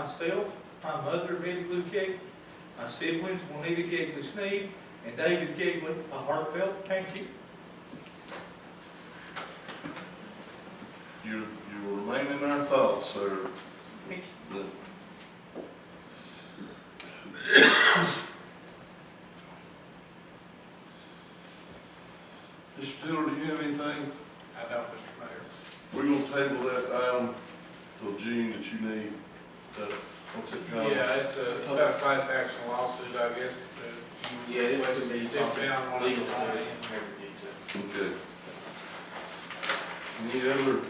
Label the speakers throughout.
Speaker 1: myself, my mother, Betty Lou Kegley, my siblings, Juanita Kegley Sneed, and David Kegley, a heartfelt thank you.
Speaker 2: You, you remain in our thoughts, sir.
Speaker 1: Thank
Speaker 2: Mr. Tiller, do you have anything?
Speaker 3: I don't, Mr. Mayor.
Speaker 2: We're gonna table that item till June that you need, that, what's it called?
Speaker 3: Yeah, it's a, it's about a class action lawsuit, I guess, that you
Speaker 4: Yeah, it
Speaker 3: request
Speaker 4: would
Speaker 3: to
Speaker 4: be
Speaker 3: sit
Speaker 4: something
Speaker 3: down on
Speaker 4: legal
Speaker 3: legal
Speaker 4: to
Speaker 3: time.
Speaker 4: to.
Speaker 2: Okay. Any other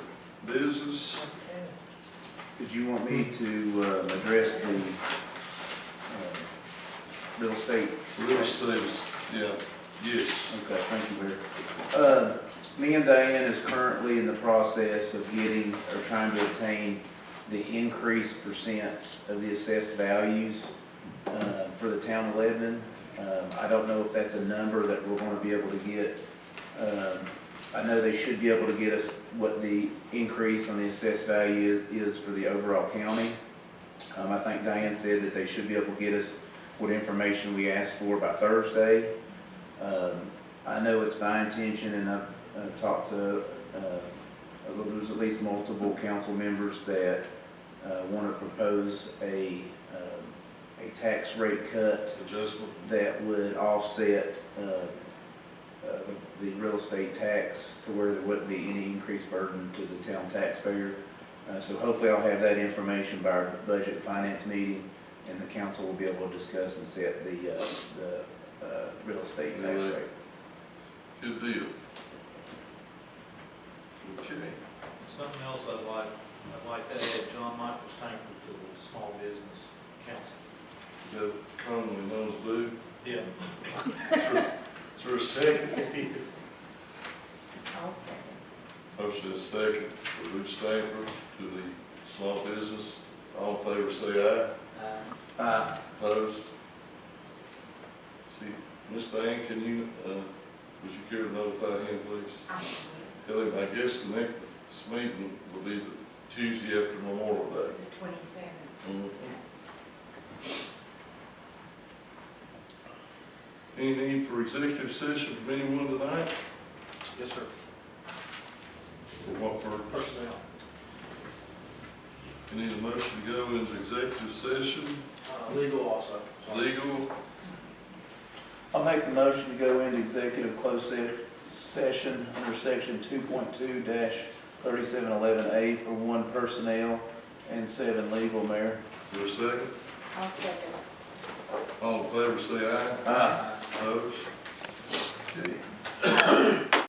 Speaker 2: business?
Speaker 5: Did you want me to uh, address the uh, real estate?
Speaker 2: Real estate, is- yeah, yes.
Speaker 5: Okay, thank you, Mayor. Uh, Me and Diane is currently in the process of getting, or trying to obtain the increased percent of the assessed values uh, for the town of Lebanon. Um, I don't know if that's a number that we're going to be able to get. Um, I know they should be able to get us what the increase on the assessed value is for the overall county. Um, I think Diane said that they should be able to get us what information we asked for by Thursday. Um, I know it's my intention, and I've, I've talked to, uh, uh, there's at least multiple council members that, uh, wanna propose a, um, a tax rate cut
Speaker 2: Adjustment?
Speaker 5: that would offset, uh, uh, the, the real estate tax to where there wouldn't be any increased burden to the town taxpayer. Uh, so hopefully I'll have that information by our budget and finance meeting, and the council will be able to discuss and set the, uh, the, uh, real estate tax
Speaker 2: Really?
Speaker 5: rate.
Speaker 2: Good deal. Okay.
Speaker 1: Something else I'd like, I'd like to add, John Michael Stanford to the Small Business Council.
Speaker 2: Is that commonly known as blue?
Speaker 1: Yeah.
Speaker 2: Is there a second?
Speaker 6: I'll second.
Speaker 2: Motion is second for Rich Stamper to the small business. All in favor, say aye. Opposed? See, Ms. Diane, can you, uh, would you care to notify him, please?
Speaker 6: I
Speaker 2: Tell him, I guess the next meeting will be the Tuesday after Memorial Day.
Speaker 6: The twenty-seventh.
Speaker 2: Mhm. Any need for executive session from anyone tonight?
Speaker 3: Yes, sir.
Speaker 2: For what purpose?
Speaker 3: Personnel.
Speaker 2: We need a motion to go into executive session,
Speaker 3: Uh, legal also.
Speaker 2: legal,
Speaker 5: I'll make the motion to go into executive closed se- session under section two point two thirty-seven eleven A for one personnel and seven legal, Mayor.
Speaker 2: for a second.
Speaker 6: I'll second.
Speaker 2: All in favor, say aye. Opposed?